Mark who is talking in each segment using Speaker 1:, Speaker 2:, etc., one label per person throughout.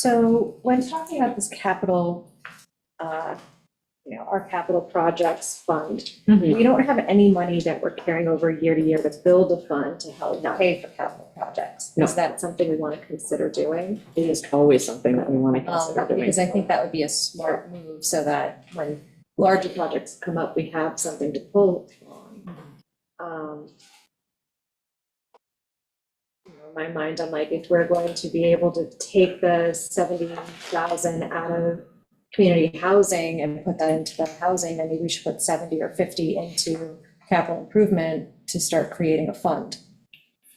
Speaker 1: So when talking about this capital, uh, you know, our capital projects fund,
Speaker 2: Mhm.
Speaker 1: we don't have any money that we're carrying over year to year to build a fund to help pay for capital projects.
Speaker 2: No.
Speaker 1: Is that something we want to consider doing?
Speaker 2: It is always something that we want to
Speaker 1: Um,
Speaker 2: consider doing.
Speaker 1: Because I think that would be a smart move so that when larger projects come up, we have something to pull on. Um, you know, in My mind, I'm like, if we're going to be able to take the seventy thousand out of community housing and put that into the housing, then maybe we should put seventy or fifty into capital improvement to start creating a fund.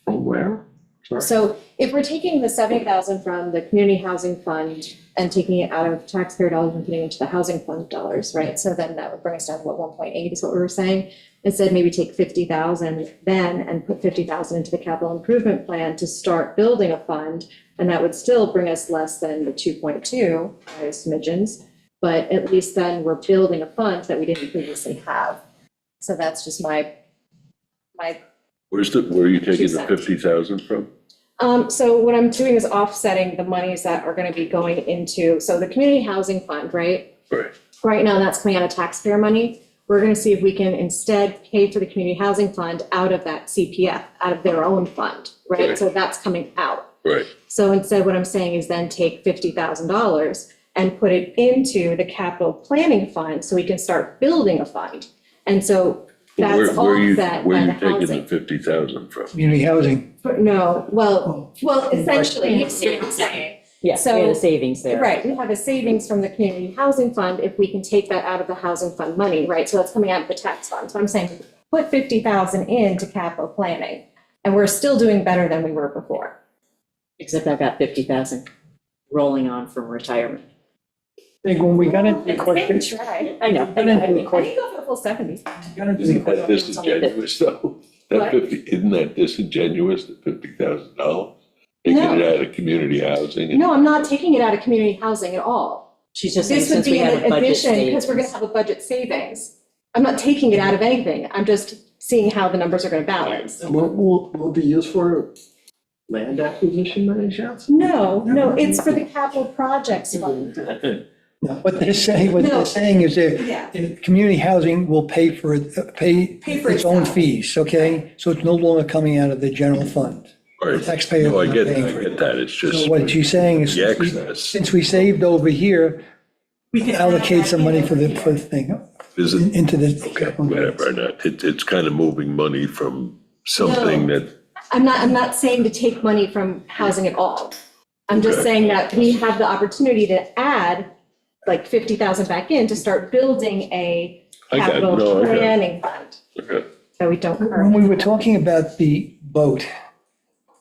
Speaker 3: From where? Sorry.
Speaker 1: So if we're taking the seventy thousand from the community housing fund and taking it out of taxpayer dollars and putting it into the housing fund dollars, right? So then that would bring us down to what, one point eight is what we were saying? Instead, maybe take fifty thousand then and put fifty thousand into the capital improvement plan to start building a fund. And that would still bring us less than the two point two, by smidgens. But at least then we're building a fund that we didn't previously have. So that's just my, my
Speaker 4: Where's the, where are you taking
Speaker 1: Two
Speaker 4: the
Speaker 1: cents.
Speaker 4: fifty thousand from?
Speaker 1: Um, so what I'm doing is offsetting the monies that are gonna be going into, so the community housing fund, right?
Speaker 4: Right.
Speaker 1: Right now, that's coming out of taxpayer money. We're gonna see if we can instead pay for the community housing fund out of that CPF, out of their own fund, right?
Speaker 4: Right.
Speaker 1: So that's coming out.
Speaker 4: Right,
Speaker 1: So instead, what I'm saying is then take fifty thousand dollars and put it into the capital planning fund so we can start building a fund. And so
Speaker 4: But
Speaker 1: that's
Speaker 4: where, where are you,
Speaker 1: offset
Speaker 4: where
Speaker 1: by
Speaker 4: are
Speaker 1: the
Speaker 4: you taking the
Speaker 1: housing.
Speaker 4: fifty thousand from?
Speaker 3: Community housing.
Speaker 1: But No, well, well, essentially, you see what I'm saying.
Speaker 2: Yes, we had
Speaker 1: so-
Speaker 2: a savings there.
Speaker 1: Right, we have a savings from the community housing fund if we can take that out of the housing fund money, right? So that's coming out of the tax fund. So I'm saying, put fifty thousand into capital planning, and we're still doing better than we were before.
Speaker 2: Except I've got fifty thousand rolling on from retirement.
Speaker 3: I think when we got into the question,
Speaker 1: try.
Speaker 2: I know.
Speaker 3: got into the
Speaker 1: I
Speaker 3: question,
Speaker 1: think go for the full seventy.
Speaker 3: got into the
Speaker 4: Isn't that
Speaker 3: question.
Speaker 4: disingenuous though? That
Speaker 1: What?
Speaker 4: fifty, isn't that disingenuous, the fifty thousand dollars? Taking
Speaker 1: No.
Speaker 4: it out of community housing and
Speaker 1: No, I'm not taking it out of community housing at all.
Speaker 2: She's just saying,
Speaker 1: This would
Speaker 2: since we
Speaker 1: be
Speaker 2: have a
Speaker 1: an
Speaker 2: budget
Speaker 1: addition, because we're
Speaker 2: savings.
Speaker 1: gonna have a budget savings. I'm not taking it out of anything. I'm just seeing how the numbers are gonna balance.
Speaker 3: Will, will, will be used for land acquisition, Mary Johnson?
Speaker 1: No, no, it's for the capital projects fund.
Speaker 5: No, What they're saying, what
Speaker 1: No.
Speaker 5: they're saying is
Speaker 2: Mm-hmm.
Speaker 5: that
Speaker 1: Yeah.
Speaker 5: the community housing will pay for, it- pay
Speaker 1: Pay for
Speaker 5: its own
Speaker 1: itself.
Speaker 5: fees, okay? So it's no longer coming out of the general fund.
Speaker 4: Right.
Speaker 5: taxpayer
Speaker 4: No, I get,
Speaker 5: paying
Speaker 4: I
Speaker 5: for
Speaker 4: get that, it's just
Speaker 5: So what she's saying is,
Speaker 4: the
Speaker 5: since we-
Speaker 4: excess.
Speaker 5: since we saved over here, allocate some money for the, for the thing, in-
Speaker 4: Isn't,
Speaker 5: into the.
Speaker 4: okay, whatever, not, it, it's kind of moving money from something that,
Speaker 1: I'm not, I'm not saying to take money from housing at all. I'm just
Speaker 4: Okay.
Speaker 1: saying that we have the opportunity to add like fifty thousand back in to start building a
Speaker 4: I got, it.
Speaker 1: capital
Speaker 4: no, I got, it.
Speaker 1: planning fund
Speaker 4: okay.
Speaker 1: that we don't
Speaker 5: When
Speaker 1: currently.
Speaker 5: we were talking about the boat,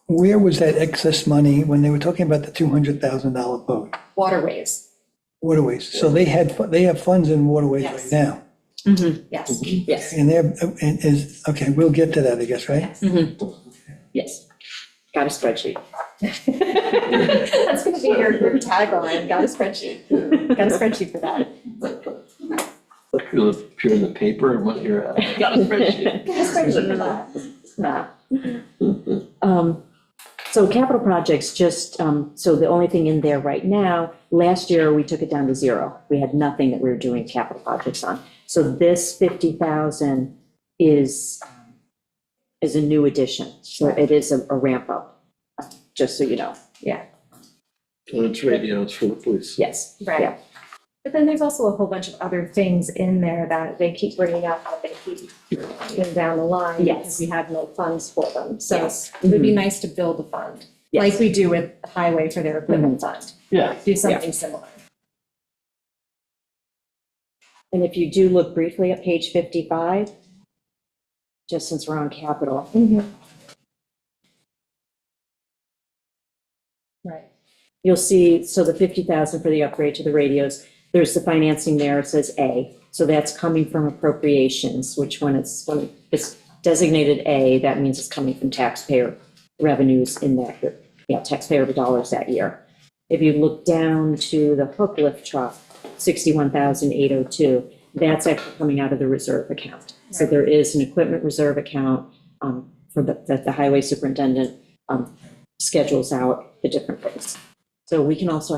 Speaker 5: where was that excess money when they were talking about the $200,000 boat?
Speaker 1: Waterways,
Speaker 5: Waterways, so they had, fu- they have funds in waterways
Speaker 1: Yes.
Speaker 5: right now.
Speaker 1: yes.
Speaker 2: Yes,
Speaker 5: And they're, and is, okay, we'll get to that, I guess, right?
Speaker 2: yes. Got a spreadsheet.
Speaker 1: That's gonna be your, your tagline, got a spreadsheet, got a spreadsheet for that.
Speaker 6: You'll appear in the paper and what you're, uh, got a spreadsheet.
Speaker 1: Got a spreadsheet for that.
Speaker 2: Nah. Um, So capital projects, just, um, so the only thing in there right now, last year, we took it down to zero. We had nothing that we were doing capital projects on. So this 50,000 is, um, is a new addition. So it is a a ramp up, just so you know.
Speaker 6: Well, it's radios for the police.
Speaker 2: Yes. Yeah.
Speaker 1: Right. But then there's also a whole bunch of other things in there that they keep bringing up, that they keep moving down the line. Because
Speaker 2: Yes.
Speaker 1: we have no funds for them, so
Speaker 2: Yes. Mm-hmm.
Speaker 1: it would be nice to build a fund, like
Speaker 2: Yes. Mm-hmm.
Speaker 1: we do with the highway for their equipment fund,
Speaker 6: Yeah.
Speaker 1: do something similar.
Speaker 2: And if you do look briefly at page 55, just since we're on capital,
Speaker 1: Right.
Speaker 2: you'll see, so the 50,000 for the upgrade to the radios, there's the financing there, it says A. So that's coming from appropriations, which when it's, when it's designated A, that means it's coming from taxpayer revenues in that, year, yeah, taxpayer dollars that year. If you look down to the hook lift truck, 61,802, that's actually coming out of the reserve account. So there is an equipment reserve account um, for the, that the highway superintendent um, schedules out the different things. So we can also